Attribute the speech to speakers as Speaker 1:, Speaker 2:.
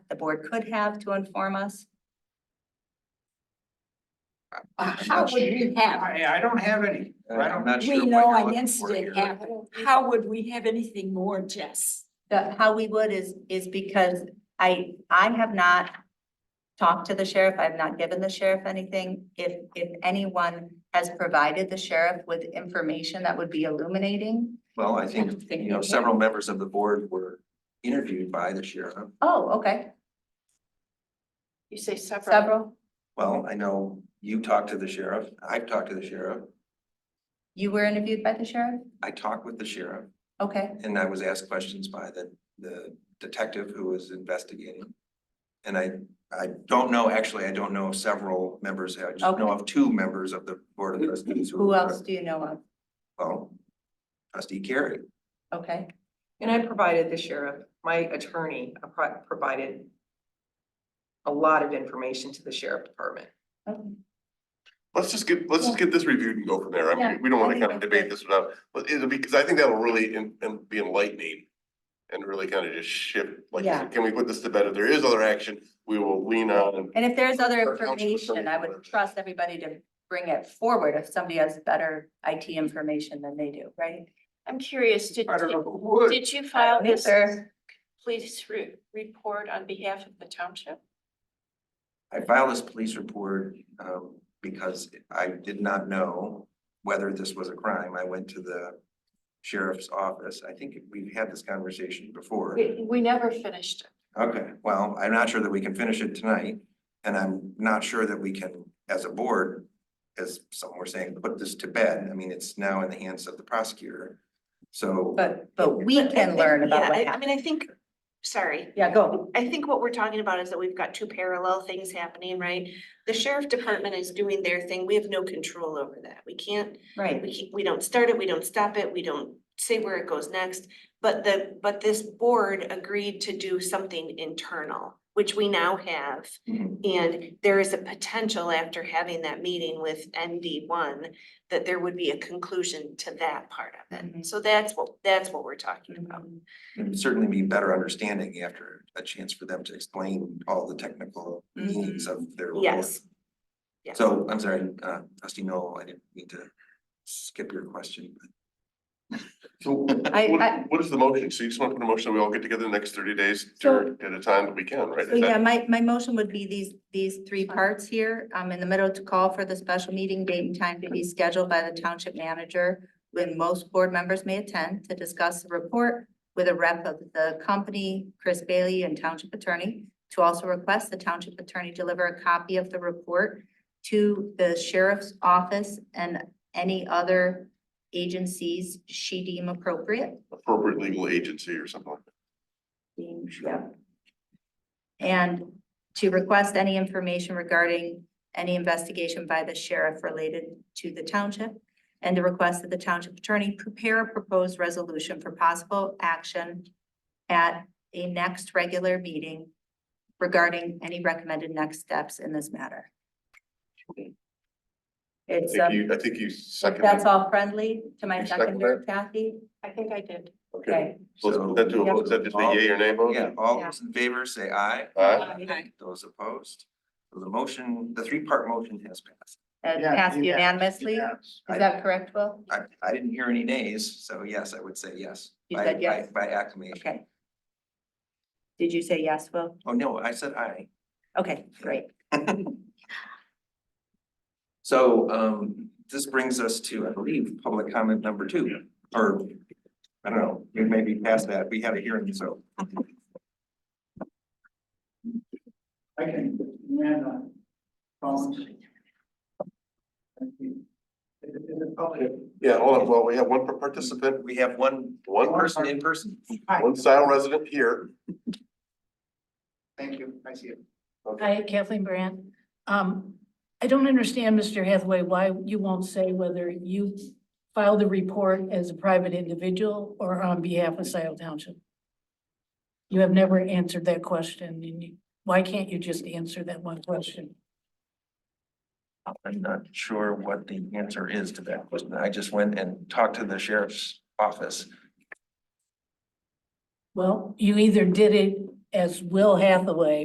Speaker 1: board could have to inform us?
Speaker 2: Uh, How would we have,
Speaker 3: I, I don't have any. I
Speaker 4: I'm
Speaker 3: don't-
Speaker 4: not sure
Speaker 2: we
Speaker 4: what
Speaker 2: know
Speaker 4: you're
Speaker 2: an
Speaker 4: looking for
Speaker 2: incident
Speaker 4: here.
Speaker 2: happened, how would we have anything more, Jess?
Speaker 1: The, how we would is, is because I, I have not talked to the sheriff, I've not given the sheriff anything. If, if anyone has provided the sheriff with information that would be illuminating,
Speaker 4: Well, I
Speaker 1: I don't
Speaker 4: think,
Speaker 1: think
Speaker 4: you know,
Speaker 1: we
Speaker 4: several members of the board were interviewed by the sheriff.
Speaker 1: oh, okay,
Speaker 5: You say several.
Speaker 1: several.
Speaker 4: Well, I know you talked to the sheriff, I've talked to the sheriff,
Speaker 1: You were interviewed by the sheriff?
Speaker 4: I talked with the sheriff,
Speaker 1: Okay,
Speaker 4: and I was asked questions by the, the detective who was investigating. And I, I don't know, actually, I don't know of several members, I just know of two members of the board of trustees.
Speaker 1: who
Speaker 4: were-
Speaker 1: else do you know of?
Speaker 4: Well, trustee Carey,
Speaker 1: Okay,
Speaker 5: And I provided the sheriff, my attorney I pro- provided a lot of information to the sheriff department.
Speaker 1: okay.
Speaker 6: Let's just get, let's just get this reviewed and go from there. I
Speaker 1: Yeah,
Speaker 6: mean, we don't
Speaker 1: I
Speaker 6: wanna
Speaker 1: think
Speaker 6: kind of
Speaker 1: that's
Speaker 6: debate
Speaker 1: good.
Speaker 6: this without, but it'll be, because I think that'll really en- en- be enlightening. And really kind of just shift, like,
Speaker 1: Yeah.
Speaker 6: can we put this to bed? If there is other action, we will lean on.
Speaker 1: And if there's other
Speaker 6: Or counsel for
Speaker 1: information, I would
Speaker 6: someone.
Speaker 1: trust everybody to bring it forward if somebody has better IT information than they do, right?
Speaker 7: I'm curious, did,
Speaker 3: I don't know
Speaker 7: did-
Speaker 3: who would.
Speaker 7: did you file this
Speaker 1: Sir,
Speaker 7: police re- report on behalf of the township?
Speaker 4: I filed this police report, um, because I did not know whether this was a crime. I went to the sheriff's office. I think we've had this conversation before.
Speaker 7: We, we never finished it.
Speaker 4: Okay, well, I'm not sure that we can finish it tonight, and I'm not sure that we can, as a board, as some were saying, put this to bed. I mean, it's now in the hands of the prosecutor. So,
Speaker 1: but, but we can learn about what
Speaker 7: I
Speaker 1: happened.
Speaker 7: mean, I think, sorry,
Speaker 1: Yeah, go.
Speaker 7: I think what we're talking about is that we've got two parallel things happening, right? The sheriff department is doing their thing. We have no control over that. We can't,
Speaker 1: Right,
Speaker 7: we keep, we don't start it, we don't stop it, we don't say where it goes next. But the, but this board agreed to do something internal, which we now have.
Speaker 1: Mm-hmm.
Speaker 4: mhm,
Speaker 7: And there is a potential after having that meeting with ND one, that there would be a conclusion to that part of
Speaker 1: Mhm.
Speaker 7: it. So that's what, that's what we're talking about.
Speaker 4: it would certainly be better understanding after a chance for them to explain all the technical needs of their
Speaker 1: Mm-hmm.
Speaker 4: report.
Speaker 7: Yes. Yes.
Speaker 4: So, I'm sorry, uh, trustee Noel, I didn't mean to skip your question, but
Speaker 6: So what,
Speaker 1: I- I-
Speaker 6: what is the motion? So you just wanna put a motion, that we all get together the next thirty days
Speaker 1: So-
Speaker 6: during, at a time that we can, right?
Speaker 1: so
Speaker 6: Is that-
Speaker 1: yeah, my, my motion would be these, these three parts here, um, in the middle to call for the special meeting date and time to be scheduled by the township manager when most board members may attend to discuss the report with a rep of the company, Chris Bailey and township attorney, to also request the township attorney deliver a copy of the report to the sheriff's office and any other agencies she deem appropriate.
Speaker 6: Appropriate legal agency or something like that.
Speaker 1: being shown. And to request any information regarding any investigation by the sheriff related to the township. And to request that the township attorney prepare a proposed resolution for possible action at a next regular meeting regarding any recommended next steps in this matter. It's,
Speaker 6: I think
Speaker 1: um,
Speaker 6: you, I think you second.
Speaker 1: that's all friendly to my
Speaker 6: You second
Speaker 1: seconder, Kathy?
Speaker 7: I think I did.
Speaker 6: Okay.
Speaker 1: Okay.
Speaker 6: So let's put that to, a vote. is that just a yay or nay vote?
Speaker 4: yeah, all those in favor say aye.
Speaker 6: Aye.
Speaker 4: Those opposed, So the motion, the three-part motion has passed.
Speaker 1: That's
Speaker 3: Yeah,
Speaker 1: passed
Speaker 3: yeah,
Speaker 1: uh, unanimously? Is
Speaker 3: Yes.
Speaker 1: that correct, Will?
Speaker 4: I, I didn't hear any nays, so yes, I would say yes.
Speaker 1: You
Speaker 4: by-
Speaker 1: said
Speaker 4: by-
Speaker 1: yes.
Speaker 4: By acclamation.
Speaker 1: Okay. Did you say yes, Will?
Speaker 4: Oh, no, I said aye.
Speaker 1: Okay, great.
Speaker 4: So, um, this brings us to, I believe, public comment number two, or, I don't know, we may be past that, we had a hearing, so.
Speaker 3: I can, man, uh, phones. Thank you. Is it- is it public?
Speaker 6: Yeah, hold on, well, we have one participant,
Speaker 4: We have one,
Speaker 6: one
Speaker 4: one
Speaker 6: person,
Speaker 4: person in person.
Speaker 3: Hi,
Speaker 6: one Scioto resident here.
Speaker 3: thank you, I see you.
Speaker 8: Hi, Kathleen Brandt. Um, I don't understand, Mr. Hathaway, why you won't say whether you filed the report as a private individual or on behalf of Scioto Township. You have never answered that question, and you, why can't you just answer that one question?
Speaker 4: I'm not sure what the answer is to that question. I just went and talked to the sheriff's office.
Speaker 8: Well, you either did it as Will Hathaway